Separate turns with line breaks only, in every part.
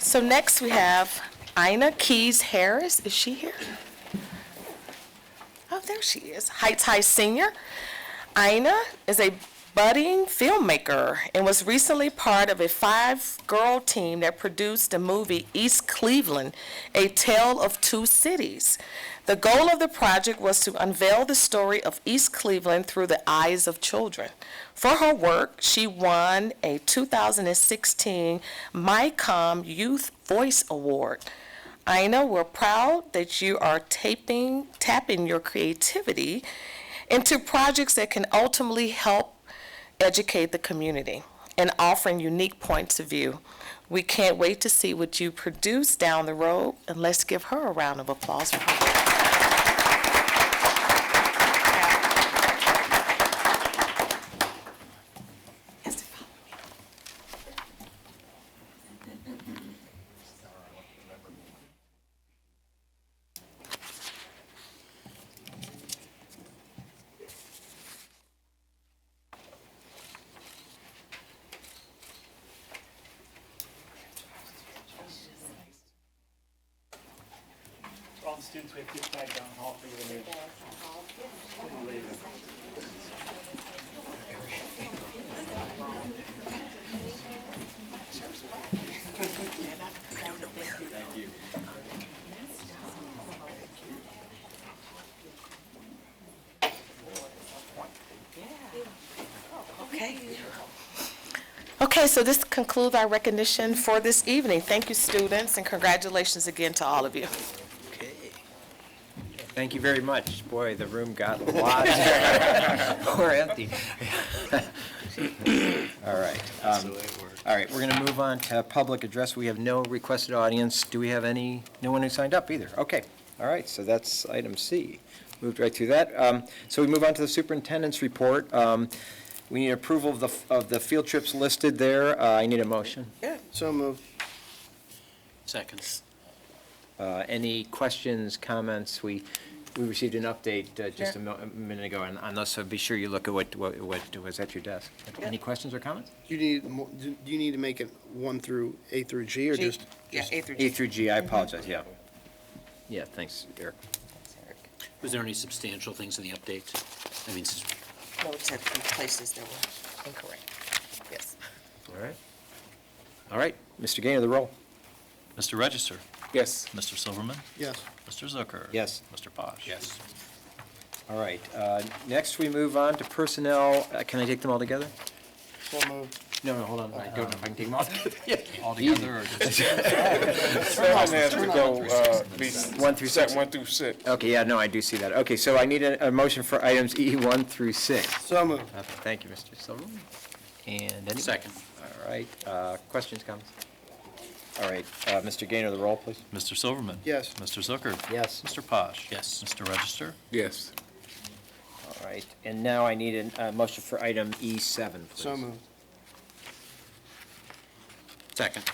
So next we have Ina Keys Harris. Is she here? Oh, there she is. Heights High Senior. Ina is a budding filmmaker and was recently part of a five-girl team that produced the movie East Cleveland, A Tale of Two Cities. The goal of the project was to unveil the story of East Cleveland through the eyes of children. For her work, she won a 2016 MyCom Youth Voice Award. Ina, we're proud that you are taping, tapping your creativity into projects that can ultimately help educate the community and offering unique points of view. We can't wait to see what you produce down the road, and let's give her a round of applause for her.
For all the students, we have to get flag down hall for you to leave. When you leave.
Okay, so this concludes our recognition for this evening. Thank you, students, and congratulations again to all of you.
Thank you very much. Boy, the room got lots more empty. All right. um, All right, we're going to move on to public address. We have no requested audience. Do we have any, no one who signed up either? Okay, all right, so that's item C. Moved right through that. Um, So we move on to the superintendent's report. Um, We need approval of the, of the field trips listed there. Uh, I need a motion.
So moved.
Seconds.
Uh, Any questions, comments? We, we received an update uh, just a mo- a minute ago on- on this, so be sure you look at what, what what was at your desk. Any questions or comments?
You need, mo- do do you need to make it one through, A through G, or just?
Yeah, A through
A through G, I apologize, yeah. Yeah, thanks, Eric.
Was there any substantial things in the update? I mean, s-
No, except in places that were
Incorrect. Yes.
All right. All right, Mr. Gainer, the roll.
Mr. Register?
Yes.
Mr. Silverman?
Yes.
Mr. Zucker?
Yes.
Mr. Posh? Yes.
All right, uh, next we move on to personnel. Uh, Can I take them all together?
So moved.
No, no, hold on, I don't know if I can take them all together.
All together or just?
Seven has to go, uh, be
One through
set
six.
one through six.
Okay, yeah, no, I do see that. Okay, so I need a, a motion for items E1 through 6.
So moved.
Okay, Thank you, Mr. Silverman. And any?
Second.
All right, uh, questions, comments? All right, uh, Mr. Gainer, the roll, please.
Mr. Silverman?
Yes.
Mr. Zucker?
Yes.
Mr. Posh?
Yes.
Mr. Register?
Yes.
All right, and now I need a motion for item E7, please.
So moved.
second.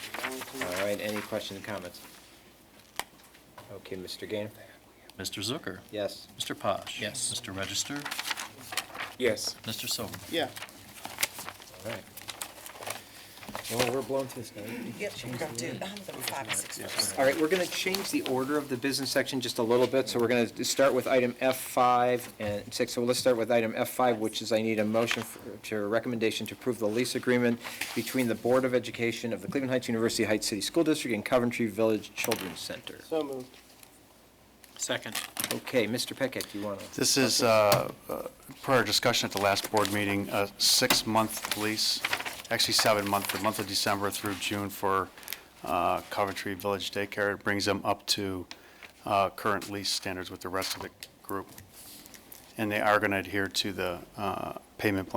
All right, any questions, comments? Okay, Mr. Gainer?
Mr. Zucker?
Yes.
Mr. Posh?
Yes.
Mr. Register?
Yes.
Mr. Silverman?
Yeah.
All right. Well, we're blown through this, guys.
Yep, we're gonna do, um, there were five or six. first.
All right, we're going to change the order of the business section just a little bit, so we're going to start with item F5 and 6. So let's start with item F5, which is I need a motion for- to a recommendation to approve the lease agreement between the Board of Education of the Cleveland Heights University Heights City School District and Coventry Village Children's Center.
So moved.
Second.
Okay, Mr. Peckett, you want to?
This is, uh, uh, per our discussion at the last board meeting, a six-month lease, actually seven-month, the month of December through June for uh, Coventry Village Daycare. It brings them up to uh, current lease standards with the rest of the group. And they are going to adhere to the uh, payment plan